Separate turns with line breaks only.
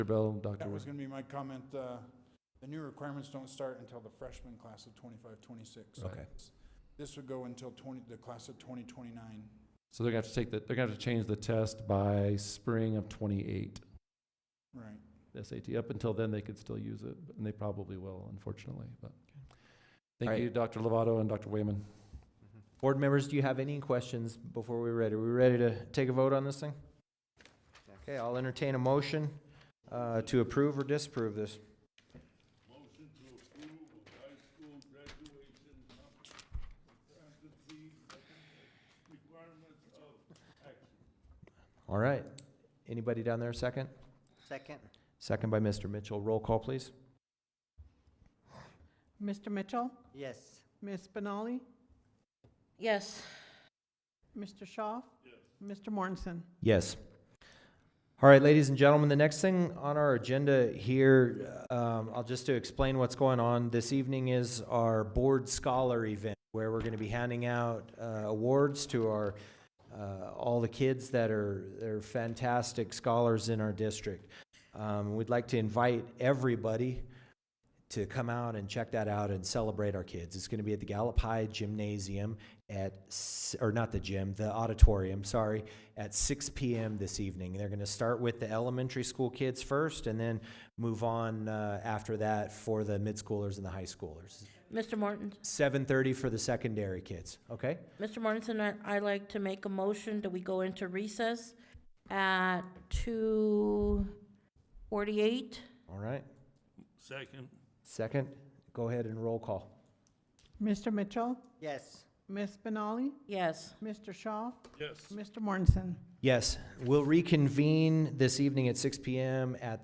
Bell, Dr.
That was
Wood.
going to be my comment. uh, The new requirements don't start until the freshman class of 25, 26.
Okay.
This would go until 20, the class of 2029.
So they're gonna have to take the, they're gonna have to change the test by spring of twenty-eight,
Right.
the SAT. Up until then, they could still use it, and they probably will, unfortunately, but.
All
Thank
right.
you, Dr. Lovato and Dr. Wayman.
Board members, do you have any questions before we're ready? Are we ready to take a vote on this thing? Okay, I'll entertain a motion uh, to approve or disapprove this. All right. Anybody down there, second?
Second.
Second by Mr. Mitchell. Roll call, please.
Mr. Mitchell,
Yes.
Ms. Benali,
Yes.
Mr. Shaw, Mr. Mortensen.
Yes. All right, ladies and gentlemen, the next thing on our agenda here, um, I'll just to explain what's going on this evening is our Board Scholar event where we're going to be handing out uh, awards to our, uh, all the kids that are, they're fantastic scholars in our district. Um, we'd like to invite everybody to come out and check that out and celebrate our kids. It's going to be at the Gallup High Gymnasium at, s- or not the gym, the auditorium, sorry, at 6 p.m. this evening. They're going to start with the elementary school kids first and then move on uh, after that for the mid schoolers and the high schoolers.
Mr. Morton,
7:30 for the secondary kids, okay?
Mr. Mortensen, I, I'd like to make a motion that we go into recess at two forty-eight.
All right.
Second.
Second, go ahead and roll call.
Mr. Mitchell,
Yes.
Ms. Benali,
Yes.
Mr. Shaw,
Yes.
Mr. Mortensen.
Yes, we'll reconvene this evening at 6 p.m. at